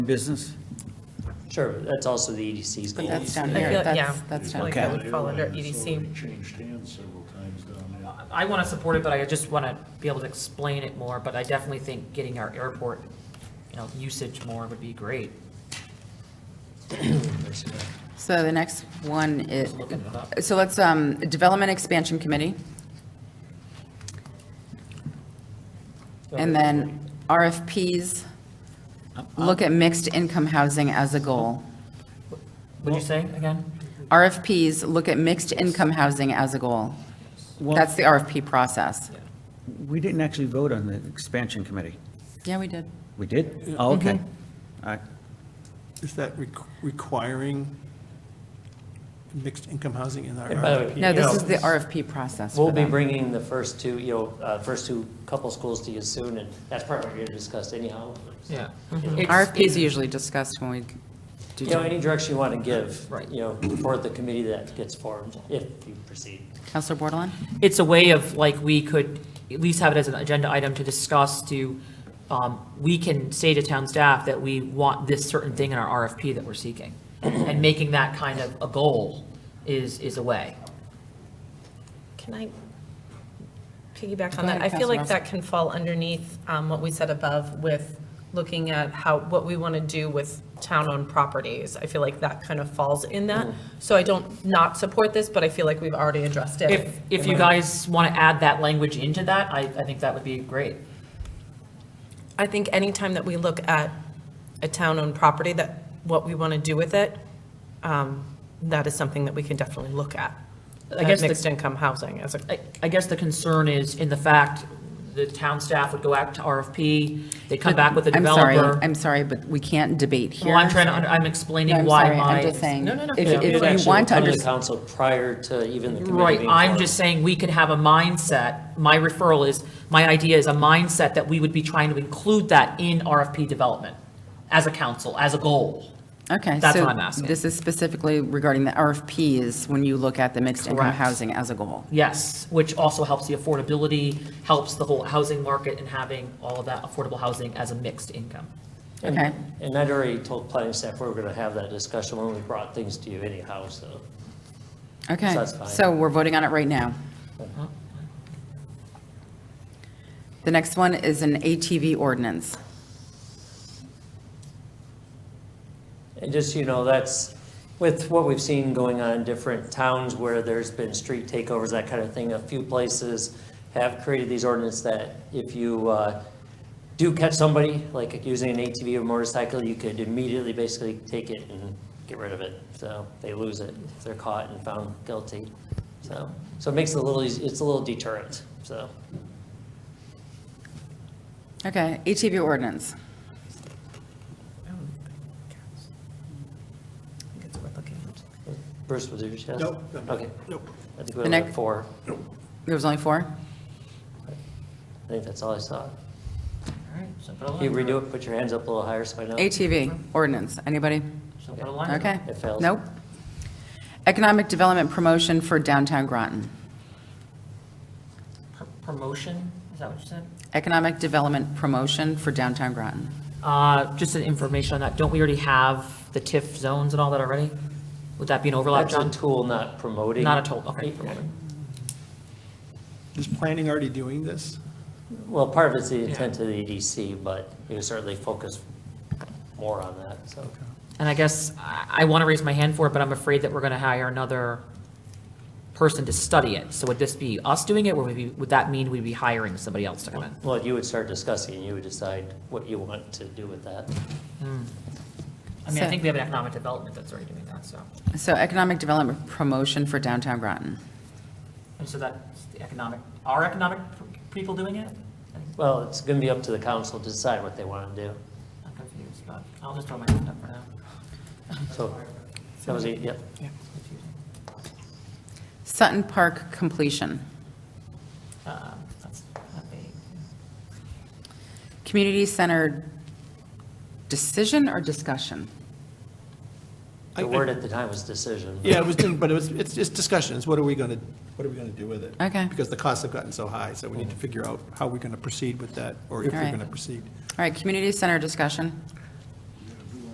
business? Sure, but that's also the EDC's But goal. that's down I feel- here, yeah. that's, that's down Like here. that would fall under E EDC. It's already Changed hands several times down there. I want to support it, but I just want to be able to explain it more, but I definitely think getting our airport, you know, usage more would be great. So the next one is, Looking it up. so let's, um, Development Expansion Committee. And then RFPs, look at mixed income housing as a goal. Would you say again? RFPs, look at mixed income housing as a goal. That's Well, the RFP process. we didn't actually vote on the expansion committee. Yeah, we did. We did? Oh, okay. All right. Is that re- requiring mixed income housing in our And by the way- RFP? No, this Yeah. is the RFP process We'll for be them. bringing the first two, you know, uh, first two couple schools to you soon, and that's part we're going to discuss anyhow. Yeah. Mm-hmm. RFPs are usually discussed when we do. You know, any direction you want to give, Right. you know, for the committee that gets formed, if you proceed. Counselor Bordelon? It's a way of, like, we could at least have it as an agenda item to discuss, to, um, we can say to town staff that we want this certain thing in our RFP that we're seeking. And making that kind of a goal is, is a way. Can I piggyback Go on that? I ahead, feel like Councilor that can fall underneath um, what we said above with looking at how, what we want to do with town-owned properties. I feel like that kind of falls in that. So I don't not support this, but I feel like we've already addressed it. If, if you guys want to add that language into that, I, I think that would be great. I think anytime that we look at a town-owned property, that, what we want to do with it, um, that is something that we can definitely look at. I guess At the- mixed-income housing as a, I- I guess the concern is in the fact, the town staff would go out to RFP, they come back with a I'm sorry, developer. I'm sorry, but we can't debate here. Well, I'm trying to, under- I'm No, explaining I'm why sorry, my. I'm just saying, No, no, no. if, Yeah, it if actually you want to will come understand. the Council prior to even the committee. Right, being I'm formed. just saying we could have a mindset, my referral is, my idea is a mindset that we would be trying to include that in RFP development as a council, as a goal. Okay. That's so what I'm asking. This is specifically regarding the RFPs, when you look at the mixed income Correct. housing as a goal. Yes, which also helps the affordability, helps the whole housing market and having all of that affordable housing as a mixed income. And- Okay. And I'd already told planning staff we were going to have that discussion when we brought things to you anyhow, so. Okay, that's fine. so we're voting on it right now. The next one is an ATV ordinance. And just, so you know, that's with what we've seen going on in different towns where there's been street takeovers, that kind of thing. A few places have created these ordinance that if you uh, do catch somebody, like using an ATV or motorcycle, you could immediately basically take it and get rid of it. So they lose it if they're caught and found guilty. So, so it makes it a little, eas- it's a little deterrent, so. Okay, ATV ordinance. Bruce, was it yours? Yes? Nope, no, Okay. nope. I think we The only had next- four. There was only four? I think that's all I saw. All right, so put a Can you line, redo it? Put your hands up a little higher so I know. ATV ordinance, anybody? so put a line. Okay, It fails. nope. Economic Development Promotion for Downtown Groton. Pr- Promotion, is that what you said? Economic Development Promotion for Downtown Groton. Uh, just an information on that, don't we already have the TIF zones and all that already? Would that be an overlap, That's a John? tool, not promoting. Not a total, okay. Is planning already doing this? Well, part of it's the intent of the EDC, but you certainly focus more on that, so. And I guess I, I want to raise my hand for it, but I'm afraid that we're going to hire another person to study it. So would this be us doing it, or would, we, would that mean we'd be hiring somebody else to come in? Well, you would start discussing, and you would decide what you want to do with that. I mean, I So- think we have an economic development that's already doing that, so. So Economic Development Promotion for Downtown Groton. And so that's the economic, are economic p- people doing it? Well, it's going to be up to the council to decide what they want to do. I'm confused, but I'll just throw my hand up for now. So, that was, it, yep. Sutton Park completion. Um, that's not big. Community center decision or discussion? I- The I- word at the time was decision. Yeah, it was, doing- but it was, it's just discussions, what are we gonna, what are we gonna do with it? Okay. Because the costs have gotten so high, so we need to figure out how we're gonna proceed with that, or if All right. we're gonna proceed. All right, community center discussion.